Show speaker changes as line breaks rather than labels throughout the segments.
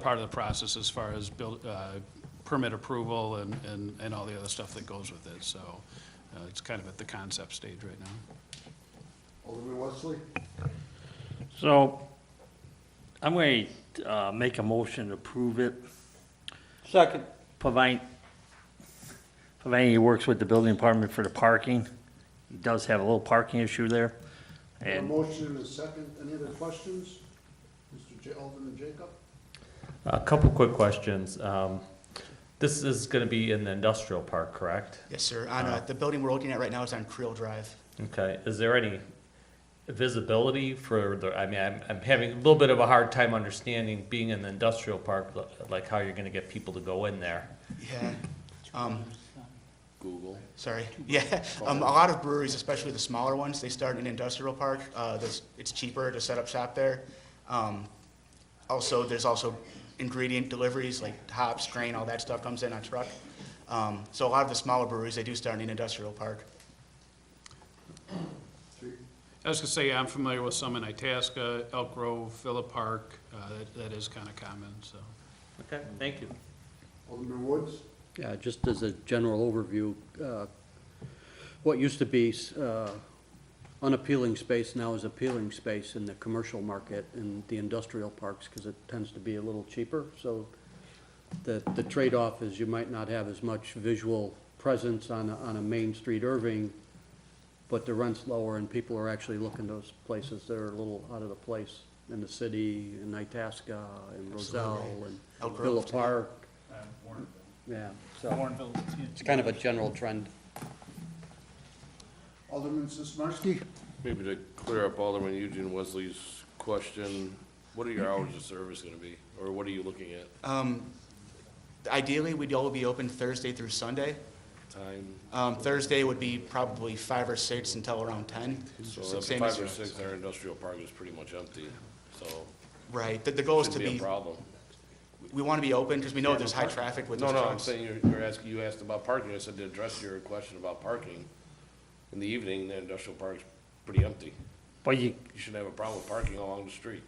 part of the process as far as build, uh, permit approval and, and, and all the other stuff that goes with it, so uh, it's kind of at the concept stage right now.
Alderman Wesley?
So I'm going to make a motion to approve it,
Second.
providing, providing he works with the building department for the parking. He does have a little parking issue there.
A
And
motion and a second. Any other questions? Mr. J- Alderman Jacob?
A couple quick questions. Um, This is going to be in the industrial park, correct?
Yes, sir. On, uh, the building we're looking at right now is on Creel Drive.
Okay, is there any visibility for the, I mean, I'm, I'm having a little bit of a hard time understanding being in the industrial park, li- like how you're going to get people to go in there.
Yeah. Google. Um, Sorry. Yeah. Um, a lot of breweries, especially the smaller ones, they start in industrial park. Uh, there's, it's cheaper to set up shop there. Um, also, there's also ingredient deliveries like hops, grain, all that stuff comes in on truck. Um, so a lot of the smaller breweries, they do start in industrial park.
Three.
I was gonna say, I'm familiar with some in Itasca, Elk Grove, Phillip Park, uh, that- that is kind of common, so.
Okay, thank you.
Alderman Woods?
Yeah, just as a general overview, uh, what used to be uh, unappealing space now is appealing space in the commercial market and the industrial parks, because it tends to be a little cheaper. So the, the trade-off is you might not have as much visual presence on, a- on a Main Street Irving, but the rent's lower and people are actually looking those places that are a little out of the place in the city, in Itasca, in Roselle, and
Elk Grove,
Villa
too.
Park. Yeah, so it's kind of a general trend.
Alderman Sismarski?
Maybe to clear up Alderman Eugene Wesley's question, what are your hours of service gonna be, or what are you looking at,
Um, ideally, we'd all be open Thursday through Sunday.
time?
Um, Thursday would be probably five or six until around ten.
So if
Same as-
five or six, our industrial park is pretty much empty, so
Right, the, the goal is to
shouldn't be a
be,
problem.
we want to be open because we know there's high traffic with
No,
those
no, I'm
trucks.
saying you're, you're asking, you asked about parking, I said to address your question about parking, in the evening, the industrial park's pretty empty.
But you,
You shouldn't have a problem with parking along the street.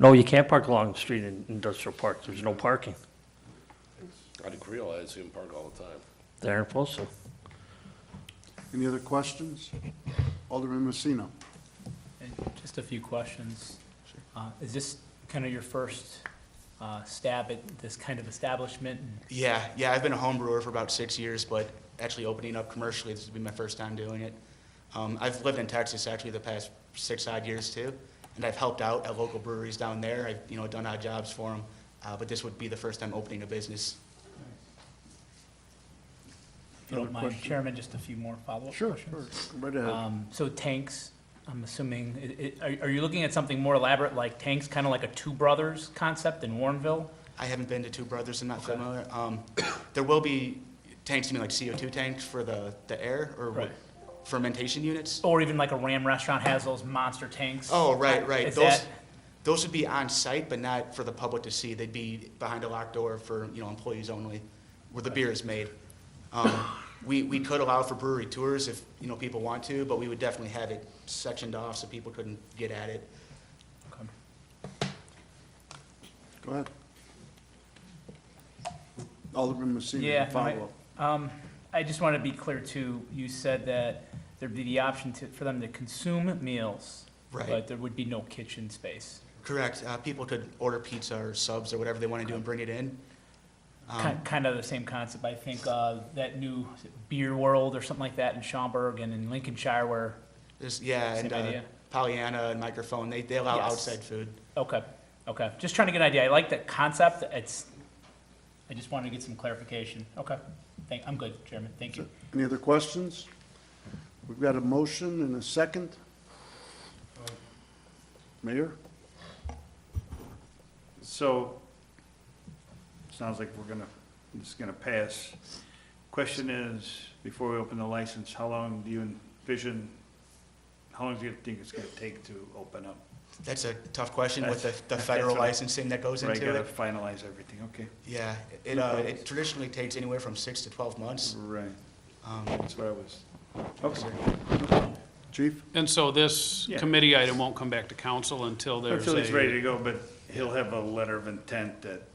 no, you can't park along the street in industrial park. There's no parking.
Out of Creole, I see him park all the time.
They aren't supposed to.
Any other questions? Alderman Messina?
And Just a few questions. Uh, Is this kind of your first uh, stab at this kind of establishment? And
Yeah, yeah, I've been a home brewer for about six years, but actually opening up commercially, this would be my first time doing it. Um, I've lived in Texas actually the past six odd years too, and I've helped out at local breweries down there. I've, you know, done odd jobs for them, uh, but this would be the first time opening a business.
If you don't mind, Chairman, just a few more follow-up questions.
Right ahead.
Um, So tanks, I'm assuming, i- i- are are you looking at something more elaborate like tanks, kind of like a Two Brothers concept in Warrenville?
I haven't been to Two Brothers, I'm not familiar. Um, there will be tanks, you mean like CO2 tanks for the, the air or what-
Right.
fermentation units?
Or even like a Ram Restaurant has those monster tanks?
Oh, right, right.
Is
Those,
that-
those would be on site, but not for the public to see. They'd be behind a locked door for, you know, employees only, where the beer is made. Um, We, we could allow for brewery tours if, you know, people want to, but we would definitely have it sectioned off so people couldn't get at it.
Okay.
Go ahead. Alderman Messina,
Yeah, no, I-
follow-up.
Um, I just want to be clear too, you said that there'd be the option to, for them to consume meals,
Right,
but there would be no kitchen space.
correct. Uh, People could order pizza or subs or whatever they want to do and bring it in. Um,
Kind, kind of the same concept, I think, uh, that new is it beer world or something like that in Schaumburg and in Lincolnshire where,
there's- Yeah,
same
and uh,
idea?
Pollyanna and Microphone, they, they allow
Yes.
outside food.
Okay, okay, just trying to get an idea, I like that concept, it's, I just wanted to get some clarification, okay. Thank, I'm good, Chairman, thank you.
Any other questions? We've got a motion and a second. Mayor?
So, sounds like we're gonna, it's gonna pass. Question is, before we open the license, how long do you envision, how long do you think it's gonna take to open up?
That's a tough question with the,
That's-
the
that's
federal
what I-
licensing that goes
Right,
into
gotta
it.
finalize everything, okay.
Yeah, it, uh, it traditionally takes anywhere from six to twelve months.
Right,
Um,
that's what I was,
so-
okay.
Chief?
And so this
Yeah.
committee item won't come back to council until there's a.
Until he's ready to go, but he'll have a letter of intent that